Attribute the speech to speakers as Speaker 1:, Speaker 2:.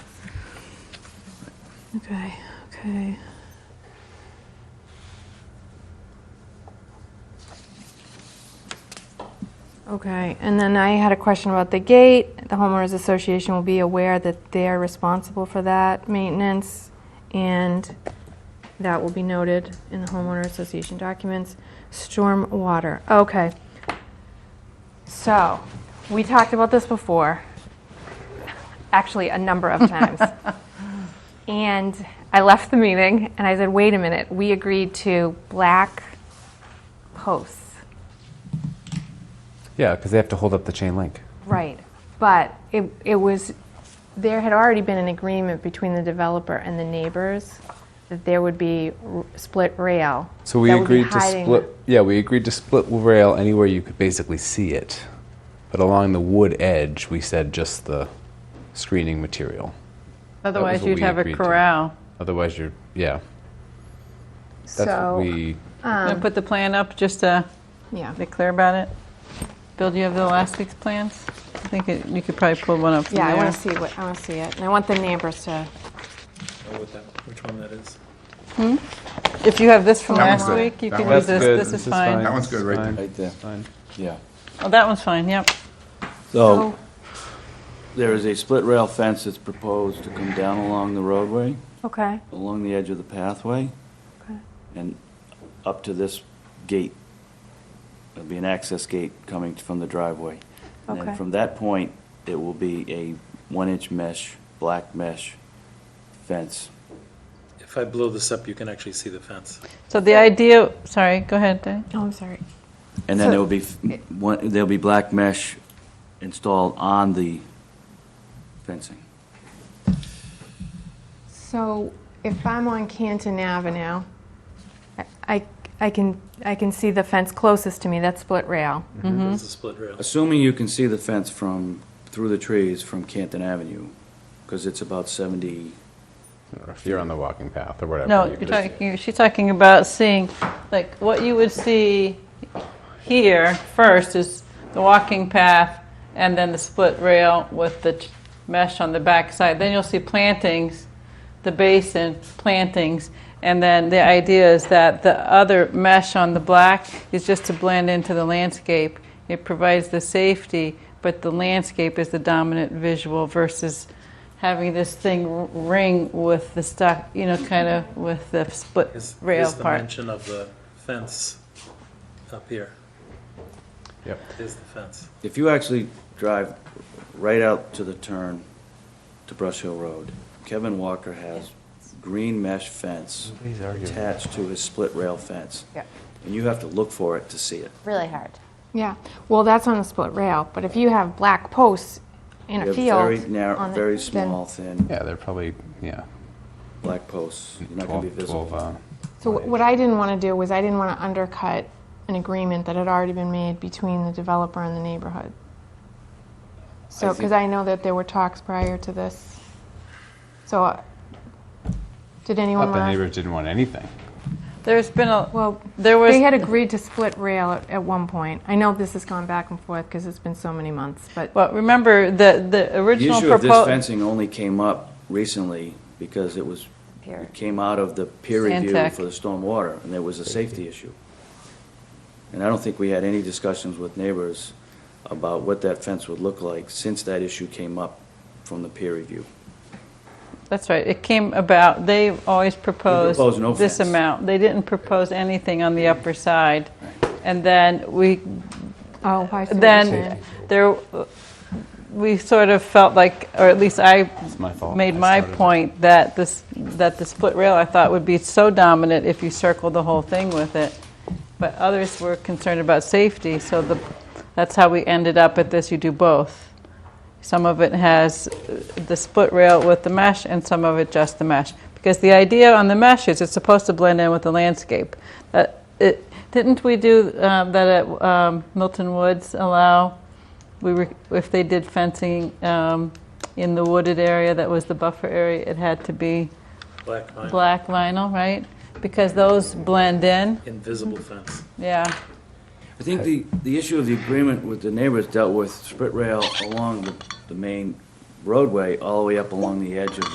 Speaker 1: Okay, okay. Okay, and then I had a question about the gate. The homeowners association will be aware that they're responsible for that maintenance, and that will be noted in the homeowner association documents. Storm water, okay. So, we talked about this before, actually, a number of times. And I left the meeting and I said, wait a minute, we agreed to black posts.
Speaker 2: Yeah, because they have to hold up the chain link.
Speaker 1: Right. But it, it was, there had already been an agreement between the developer and the neighbors that there would be r- split rail.
Speaker 2: So we
Speaker 1: that would be
Speaker 2: agreed to
Speaker 1: hiding-
Speaker 2: split. Yeah, we agreed to split rail anywhere you could basically see it, but along the wood edge, we said just the screening material.
Speaker 3: Otherwise,
Speaker 2: what
Speaker 3: you'd
Speaker 2: we
Speaker 3: have a
Speaker 2: agreed to.
Speaker 3: corral.
Speaker 2: Otherwise, you're yeah. That's
Speaker 1: So,
Speaker 2: what we.
Speaker 1: Um,
Speaker 3: Wanna Put the plan up, just to
Speaker 1: Yeah.
Speaker 3: be clear about it. Bill, do you have the last six plans? I think it- you could probably pull one up from
Speaker 1: Yeah, I
Speaker 3: there.
Speaker 1: want to see what, I want to see it. And I want the neighbors to,
Speaker 4: know what that, which one that is.
Speaker 3: If you have this from
Speaker 1: That
Speaker 3: last
Speaker 1: one's good.
Speaker 3: week, you
Speaker 5: That
Speaker 3: can use
Speaker 5: one's
Speaker 3: this,
Speaker 2: good,
Speaker 3: this is fine.
Speaker 5: That one's good, right there.
Speaker 6: Right there.
Speaker 2: It's fine.
Speaker 6: Yeah.
Speaker 3: Oh, that one's fine, yep.
Speaker 2: Oh.
Speaker 6: So, there is a split rail fence that's proposed to come down along the roadway,
Speaker 1: Oh, okay,
Speaker 6: along the edge of the pathway,
Speaker 1: okay,
Speaker 6: and up to this gate. There'll be an access gate coming from the driveway. And
Speaker 1: Okay.
Speaker 6: then from that point, it will be a one-inch mesh, black mesh fence.
Speaker 4: If I blow this up, you can actually see the fence.
Speaker 3: So the idea, sorry, go ahead, Dan.
Speaker 1: oh, I'm sorry.
Speaker 6: And then
Speaker 3: So-
Speaker 6: there will be, f- one- there'll be black mesh installed on the fencing.
Speaker 1: So if I'm on Canton Avenue, I- I, I can, I can see the fence closest to me, that's split rail.
Speaker 6: Mm-hmm.
Speaker 3: Mm-hmm.
Speaker 4: There's a split rail.
Speaker 6: Assuming you can see the fence from, through the trees from Canton Avenue, because it's about 70,
Speaker 2: Or if you're on the walking path or whatever.
Speaker 3: No,
Speaker 2: you
Speaker 3: you're
Speaker 2: could-
Speaker 3: talking, she's talking about seeing, like, what you would see here first is the walking path and then the split rail with the t- mesh on the backside. Then you'll see plantings, the basin plantings. And then the idea is that the other mesh on the black is just to blend into the landscape. It provides the safety, but the landscape is the dominant visual versus having this thing r- ring with the stock, you know, kind of with the split
Speaker 4: Here's-
Speaker 3: rail
Speaker 4: Here's the
Speaker 3: part.
Speaker 4: mention of the fence up here.
Speaker 2: Yep.
Speaker 4: Here's the fence.
Speaker 6: if you actually drive right out to the turn to Brush Hill Road, Kevin Walker has green mesh fence attached to his split rail fence.
Speaker 1: Yeah.
Speaker 6: And you have to look for it to see it.
Speaker 7: really hard.
Speaker 1: Yeah, well, that's on a split rail, but if you have black posts in a
Speaker 6: You have
Speaker 1: field.
Speaker 6: very narrow,
Speaker 1: on the-
Speaker 6: very
Speaker 1: then-
Speaker 6: small, thin,
Speaker 2: Yeah, they're probably yeah.
Speaker 6: black posts. You're not going to
Speaker 2: 12,
Speaker 6: be visible.
Speaker 2: 12, uh,
Speaker 1: So wh- what I didn't want to do was I didn't want to undercut an agreement that had already been made between the developer and the neighborhood. So, because I know that there were talks prior to this. So, uh, did anyone
Speaker 2: thought the
Speaker 1: want to?
Speaker 2: neighbors didn't want anything.
Speaker 3: There's been a,
Speaker 1: Well,
Speaker 3: there was.
Speaker 1: they had agreed to split rail at, at one point. I know this has gone back and forth because it's been so many months, but,
Speaker 3: Well, remember, the, the
Speaker 6: The
Speaker 3: original
Speaker 6: issue of this
Speaker 3: proposal,
Speaker 6: fencing only came up recently because it was,
Speaker 7: Peer.
Speaker 6: it came out of the peer review
Speaker 3: Stantec.
Speaker 6: for the stormwater, and there was a safety issue. And I don't think we had any discussions with neighbors about what that fence would look like since that issue came up from the peer review.
Speaker 3: that's right, it came about, they always proposed
Speaker 6: proposed no
Speaker 3: this
Speaker 6: fence.
Speaker 3: amount. They didn't propose anything on the upper side. And then we,
Speaker 1: oh, I see what you're
Speaker 3: then
Speaker 1: saying.
Speaker 3: there, we sort of felt like, or at least I
Speaker 2: my fault.
Speaker 3: made
Speaker 2: I
Speaker 3: my
Speaker 2: started it.
Speaker 3: point that this, that the split rail I thought would be so dominant if you circled the whole thing with it. But others were concerned about safety, so the, that's how we ended up at this, you do both. Some of it has uh, the split rail with the mesh, and some of it just the mesh. Because the idea on the mesh is it's supposed to blend in with the landscape. That it, didn't we do uh, that at um, Milton Woods allow, we were, if they did fencing um, in the wooded area that was the buffer area, it had to be
Speaker 4: Black line,
Speaker 3: black vinyl, right? Because those blend in,
Speaker 4: invisible fence.
Speaker 3: yeah.
Speaker 6: I think the, the issue of the agreement with the neighbors dealt with split rail along the, the main roadway, all the way up along the edge of